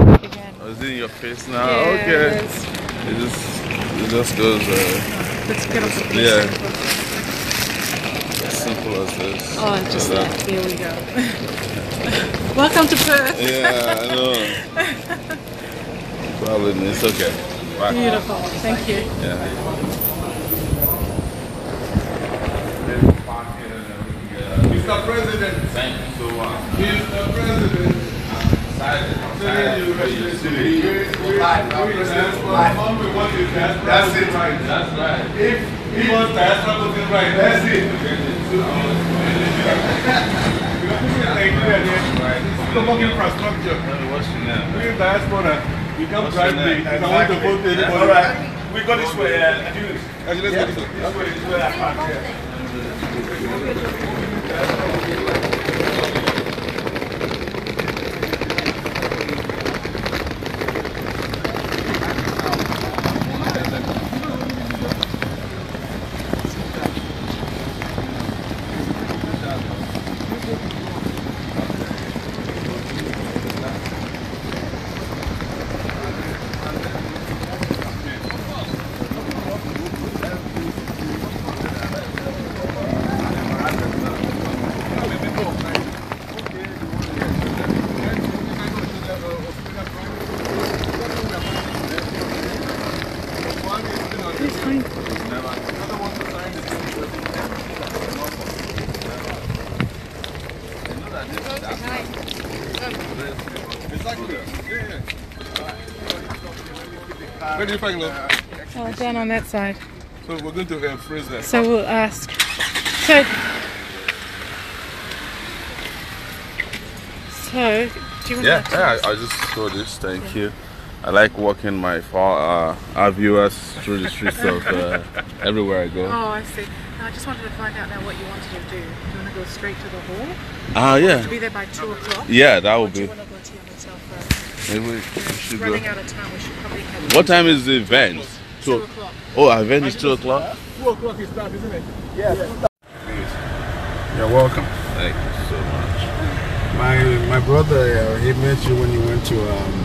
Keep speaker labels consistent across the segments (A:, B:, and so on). A: Oh, it's in your face now.
B: Yeah,
A: okay.
B: it's-
A: It just it just goes uh,
B: Let's get off the piece.
A: Yeah. as simple as this.
B: Oh, just
A: Like
B: that. Here we go. Welcome to Perth.
A: Yeah, I know. Probably it's okay. Bye.
B: Beautiful. Thank you.
A: Yeah.
C: Mr. President,
A: Thank you so much.
C: Mr. uh, President,
A: Thank you.
C: we, we, we respond to what you can. That's it. That's right. If he wants to ask something right, that's it. You don't need to thank me again. It's the work infrastructure.
A: What's your name?
C: We're in diaspora. You can't
A: What's
C: drive
A: your
C: me.
A: name?
C: I want to vote to anybody.
A: All right.
C: We go this way, uh, Julius. Actually, let's go this way. This way, this way, I can't, yeah. Where do you park, love?
B: Oh, down on that side.
C: So we're going to uh, freeze that.
B: So we'll ask. So. So, do you want
A: Yeah,
B: to?
A: yeah I, I just saw this. Thank you. I like walking my far, uh, our viewers through the streets of uh, everywhere I go.
B: Oh, I see. Now, I just wanted to find out now what you wanted to do. Do you want to go straight to the hall?
A: Ah, yeah.
B: Be there by 2 o'clock?
A: Yeah, that
B: Or
A: would
B: do
A: be.
B: you want to go to your hotel first?
A: Maybe we should go.
B: Running out of time, we should probably have
A: What time is the event? Two. o-
B: 2 o'clock.
A: Oh, our event is two o'clock.
C: Two o'clock is start, isn't it?
A: You're welcome. Thank you so much.
D: My my brother, uh, he met you when you went to um,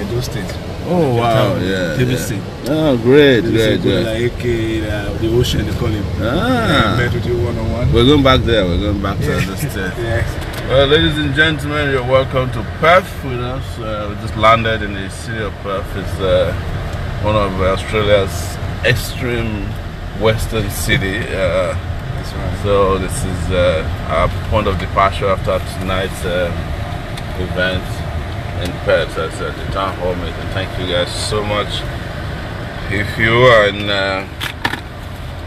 D: Edo State. Um,
A: Oh wow, yeah.
D: TBC.
A: yeah. Oh great, great, great.
D: Like, AK, uh, the ocean, they call him.
A: Ah,
D: Met with you one on one.
A: we're going back there. We're going back to the state.
D: Yes.
A: Well, ladies and gentlemen, you're welcome to Perth with us. Uh, we just landed in the city of Perth. It's uh, one of Australia's extreme western city. Uh,
D: That's right.
A: so this is uh, our point of departure after tonight's um, event in Perth as uh, the town hall meeting. Thank you guys so much. If you are in, uh,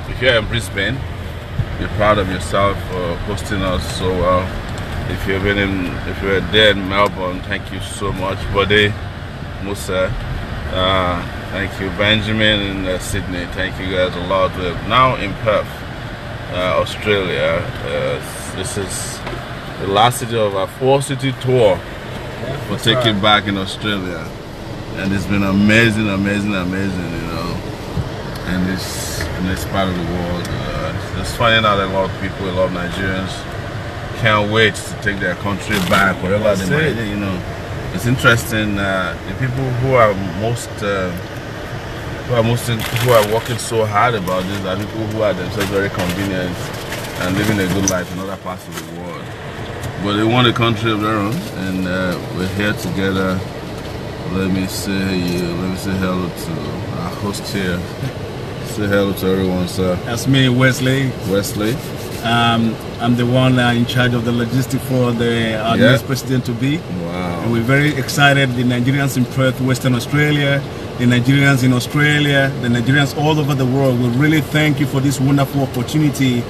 A: if you're in Brisbane, be proud of yourself for hosting us so well. If you've been in, if you're there in Melbourne, thank you so much, buddy Musa. Uh, thank you, Benjamin in uh, Sydney. Thank you guys a lot. We're now in Perth uh, Australia. Uh, this is the last city of our four city tour for taking back in Australia, and it's been amazing, amazing, amazing. You know, in this in this part of the world, uh, just finding out a lot of people, a lot of Nigerians can't wait to take their country back wherever
D: That's
A: they
D: it.
A: might. You know, it's interesting. Uh, the people who are most uh, who are most who are working so hard about this are people who are themselves very convenient and living a good life in other parts of the world. But they want a country of their own, and uh, we're here together. Let me say you. Let me say hello to our host here. Say hello to everyone, sir.
D: That's me, Wesley.
A: Wesley.
D: Um, I'm the one uh, in charge of the logistics for the our
A: Yeah.
D: next president to be. And
A: Wow.
D: we're very excited. The Nigerians in Perth, Western Australia, the Nigerians in Australia, the Nigerians all over the world. We really thank you for this wonderful opportunity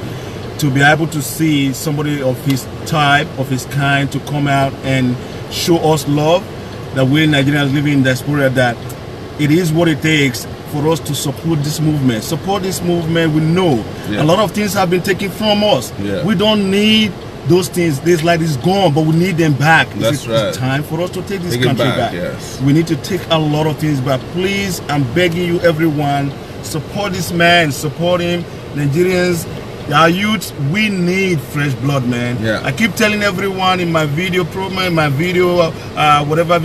D: to be able to see somebody of his type, of his kind, to come out and show us love that we Nigerians living in diaspora that it is what it takes for us to support this movement. Support this movement. We know
A: Yeah.
D: a lot of things have been taken from us.
A: Yeah.
D: We don't need those things. This light is gone, but we need them back. It's-
A: That's
D: it's
A: right.
D: time for us to take this
A: Take it
D: country
A: back,
D: back.
A: yes.
D: We need to take a lot of things back. Please, I'm begging you, everyone, support this man, support him. Nigerians, our youth, we need fresh blood, man.
A: Yeah.
D: I keep telling everyone in my video program, in my video, uh, whatever